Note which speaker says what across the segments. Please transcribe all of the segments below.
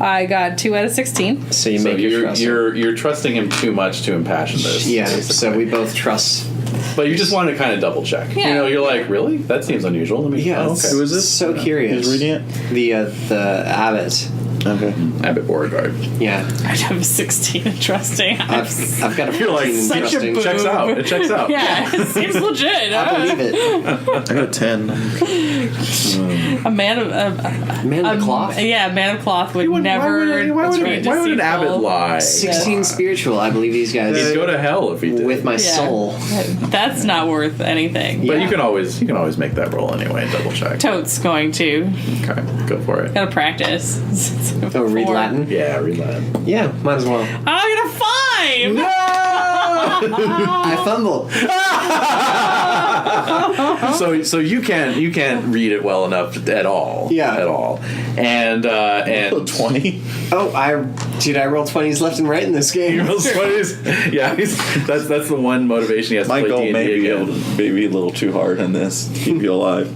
Speaker 1: I got two out of 16.
Speaker 2: So you
Speaker 3: So
Speaker 2: make your
Speaker 3: you're
Speaker 2: trust.
Speaker 3: you're you're trusting him too much to impassion this.
Speaker 2: yeah. So we both trust.
Speaker 3: But you just want to kind of double check. You
Speaker 1: Yeah.
Speaker 3: know, you're like, really? That seems unusual. Let me.
Speaker 2: Yeah.
Speaker 3: Oh,
Speaker 2: it's
Speaker 3: okay.
Speaker 4: was this?
Speaker 2: So curious.
Speaker 4: Who's reading it?
Speaker 2: The uh, the abbot.
Speaker 4: Okay.
Speaker 3: Abbott Beauregard.
Speaker 2: Yeah.
Speaker 1: I have 16 in trusting. I'm
Speaker 2: I've, I've got a
Speaker 3: You're like,
Speaker 2: 14 in
Speaker 3: such
Speaker 1: such
Speaker 2: trusting.
Speaker 1: a boob.
Speaker 3: Checks out. It checks out.
Speaker 1: Yeah, it seems legit.
Speaker 2: I believe it.
Speaker 4: I got a ten.
Speaker 1: A man of a,
Speaker 2: Man
Speaker 1: a,
Speaker 2: of the cloth.
Speaker 1: Um, Yeah, a man of cloth would,
Speaker 3: would-
Speaker 1: never.
Speaker 3: Why would, why would,
Speaker 1: be
Speaker 3: why would an abbot
Speaker 1: deceitful.
Speaker 3: lie?
Speaker 2: 16 spiritual. I believe these
Speaker 3: He'd
Speaker 2: guys
Speaker 3: go to hell if he did.
Speaker 2: with my
Speaker 1: Yeah.
Speaker 2: soul.
Speaker 1: That's not worth anything.
Speaker 3: but
Speaker 2: Yeah.
Speaker 3: you can always you can always make that roll anyway. and Double check.
Speaker 1: Totes going to.
Speaker 3: Okay, go for it.
Speaker 1: Gotta practice.
Speaker 2: Oh, read
Speaker 1: Four.
Speaker 2: Latin.
Speaker 3: Yeah, read that.
Speaker 2: Yeah, might as well.
Speaker 1: Oh, I got a five!
Speaker 2: I
Speaker 1: Ah.
Speaker 2: fumble.
Speaker 3: so so you can't you can't read it well enough at all.
Speaker 2: Yeah.
Speaker 3: at all. And uh, and
Speaker 4: Twenty.
Speaker 2: Oh, I dude, I roll twenties left and right in this
Speaker 3: He
Speaker 2: game.
Speaker 3: rolls 20s. Yeah, he's, that's that's the one motivation he has
Speaker 4: My
Speaker 3: to
Speaker 4: goal
Speaker 3: play
Speaker 4: may
Speaker 3: D&D
Speaker 4: be a,
Speaker 3: again.
Speaker 4: maybe a little too hard on this to keep you alive.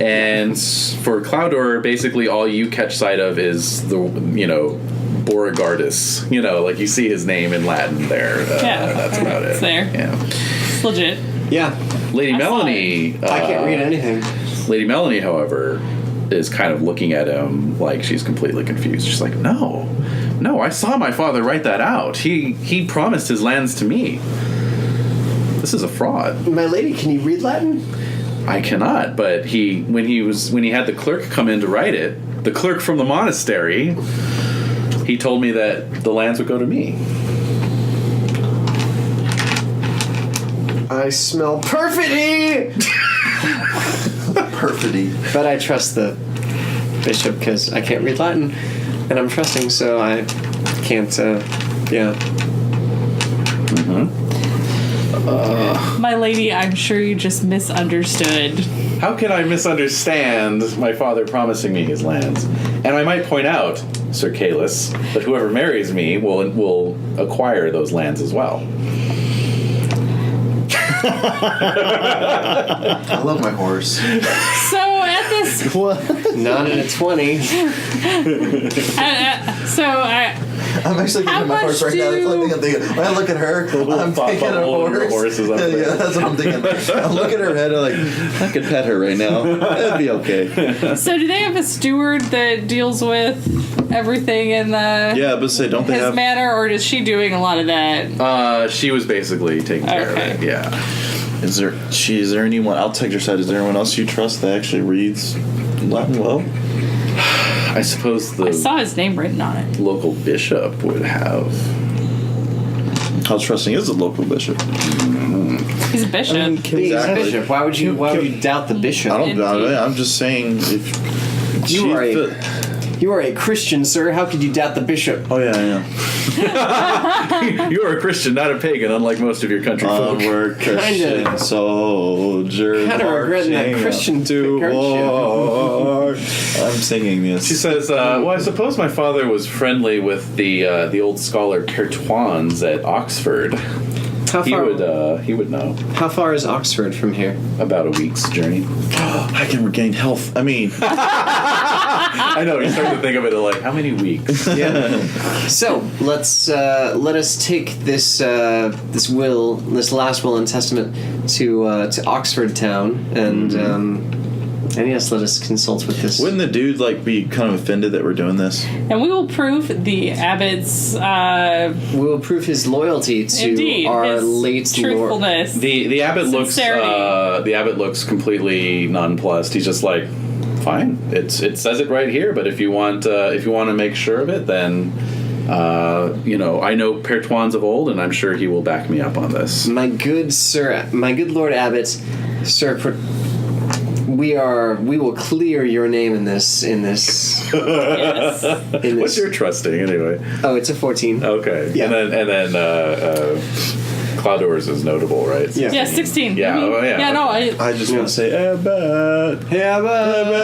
Speaker 3: And s- for Cloudor, basically all you catch sight of is the you know Beauregardus. You know, like you see his name in Latin there. Uh,
Speaker 1: Yeah.
Speaker 3: that's about it.
Speaker 1: It's there.
Speaker 3: Yeah,
Speaker 1: It's legit.
Speaker 2: Yeah,
Speaker 3: Lady
Speaker 1: I saw
Speaker 3: Melanie.
Speaker 2: I can't
Speaker 3: uh,
Speaker 2: read anything.
Speaker 3: Lady Melanie, however, is kind of looking at him like she's completely confused. She's like, "No, no, I saw my father write that out. He he promised his lands to me. This is a fraud."
Speaker 2: My lady, can you read Latin?
Speaker 3: I cannot. But he, when he was, when he had the clerk come in to write it, the clerk from the monastery, he told me that the lands would go to me.
Speaker 2: I smell perfidy,
Speaker 4: Perfidy.
Speaker 2: but I trust the bishop because I can't read Latin, and I'm trusting, so I can't. Uh, yeah,
Speaker 1: My lady, I'm sure you just misunderstood.
Speaker 3: How can I misunderstand my father promising me his lands? And I might point out, Sir Calus, that whoever marries me will will acquire those lands as well.
Speaker 4: I love my horse.
Speaker 1: So at this,
Speaker 4: What?
Speaker 2: not in a twenty.
Speaker 1: I- I- so I,
Speaker 4: I'm actually
Speaker 1: How
Speaker 4: thinking of my horse
Speaker 1: much
Speaker 4: right now. That's the
Speaker 1: do-
Speaker 4: only thing I'm thinking. When I look at her,
Speaker 3: little
Speaker 4: I'm
Speaker 3: pop-
Speaker 4: thinking of
Speaker 3: bubble over
Speaker 4: horse.
Speaker 3: horses up
Speaker 4: yeah,
Speaker 3: there.
Speaker 4: that's what I'm thinking. I'm looking at her head. I'm like, I could pet her right now. That'd be okay.
Speaker 1: so do they have a steward that deals with everything in the
Speaker 4: Yeah, but say, don't they
Speaker 1: his
Speaker 4: have?
Speaker 1: manor, or is she doing a lot of that?
Speaker 3: Uh, she was basically taking care of it.
Speaker 1: Okay.
Speaker 3: Yeah.
Speaker 4: Is there? She, is there anyone? I'll take your side. Is there anyone else you trust that actually reads Latin well?
Speaker 3: I suppose the
Speaker 1: I saw his name written on it.
Speaker 3: local bishop would have.
Speaker 4: How trusting is the local bishop?
Speaker 1: He's a bishop.
Speaker 2: Being a
Speaker 4: Exactly.
Speaker 2: bishop, why would you? Why would you doubt the bishop?
Speaker 4: I don't doubt
Speaker 1: Indeed.
Speaker 4: it. I'm just saying if
Speaker 2: You
Speaker 4: she's
Speaker 2: are a-
Speaker 4: the-
Speaker 2: You are a Christian, sir. How could you doubt the bishop?
Speaker 4: oh yeah, yeah.
Speaker 3: you are a Christian, not a pagan, unlike most of your country folk.
Speaker 4: Onward, Uh, Christian
Speaker 2: Kinda-
Speaker 4: soldier.
Speaker 2: Kinda regretting that
Speaker 4: marching
Speaker 2: Christian
Speaker 4: up to
Speaker 2: partnership.
Speaker 4: war. I'm singing this.
Speaker 3: She says, uh, "Well, I suppose my father was friendly with the uh, the old scholar Pertwans at Oxford.
Speaker 2: How
Speaker 3: He
Speaker 2: far?
Speaker 3: would uh, he would know
Speaker 2: how far is Oxford from here?
Speaker 3: about a week's journey.
Speaker 4: I can regain health. I mean,
Speaker 3: I know. You start to think of it like how many weeks?
Speaker 2: So let's uh, let us take this uh, this will, this last will and testament to uh, to Oxford Town, and
Speaker 3: Mm-hmm.
Speaker 2: um, and yes, let us consult with this.
Speaker 4: wouldn't the dude like be kind of offended that we're doing this?
Speaker 1: And we will prove the abbot's uh,
Speaker 2: we will prove his loyalty to
Speaker 1: indeed
Speaker 2: our
Speaker 1: his
Speaker 2: late lord.
Speaker 1: truthfulness.
Speaker 3: The the abbot looks
Speaker 1: Sincerity.
Speaker 3: uh, the abbot looks completely nonplussed. He's just like, fine. It's it says it right here. But if you want uh, if you want to make sure of it, then." Uh, you know, I know Pertwans of old, and I'm sure he will back me up on this.
Speaker 2: My good sir, my good Lord Abbot, sir. Pro- we are. We will clear your name in this. In this.
Speaker 1: yes.
Speaker 2: In this.
Speaker 3: What's your trusting, anyway?
Speaker 2: oh, it's a fourteen.
Speaker 3: Okay.
Speaker 2: Yeah.
Speaker 3: And then and then uh, uh, Cloudors is notable, right?
Speaker 2: Yeah.
Speaker 1: Yeah, 16.
Speaker 3: Yeah,
Speaker 1: Mhm.
Speaker 3: oh, yeah,
Speaker 1: Yeah, no, I.
Speaker 4: I just want to say Abbott.
Speaker 2: Yeah,
Speaker 4: Abbott.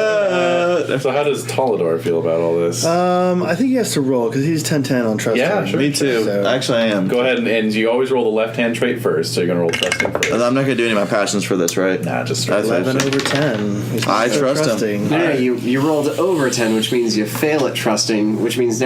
Speaker 3: Uh, So how does Tolador feel about all this?
Speaker 2: Uh,
Speaker 5: Um, I think he has to roll because he's 10-10 on trust.
Speaker 3: Yeah,
Speaker 5: me.
Speaker 3: sure. Me too.
Speaker 5: So-
Speaker 4: Actually, I am.
Speaker 3: Go ahead and, and you always roll the left hand trait first, so you're gonna roll trusting first.
Speaker 4: I'm not gonna do any of my passions for this, right?
Speaker 3: nah, just
Speaker 4: That's
Speaker 5: Eleven
Speaker 4: actually-
Speaker 5: over ten. He's
Speaker 4: I
Speaker 5: so
Speaker 4: trust him.
Speaker 5: trusting.
Speaker 2: yeah, you, you rolled over 10, which means you fail at trusting, which means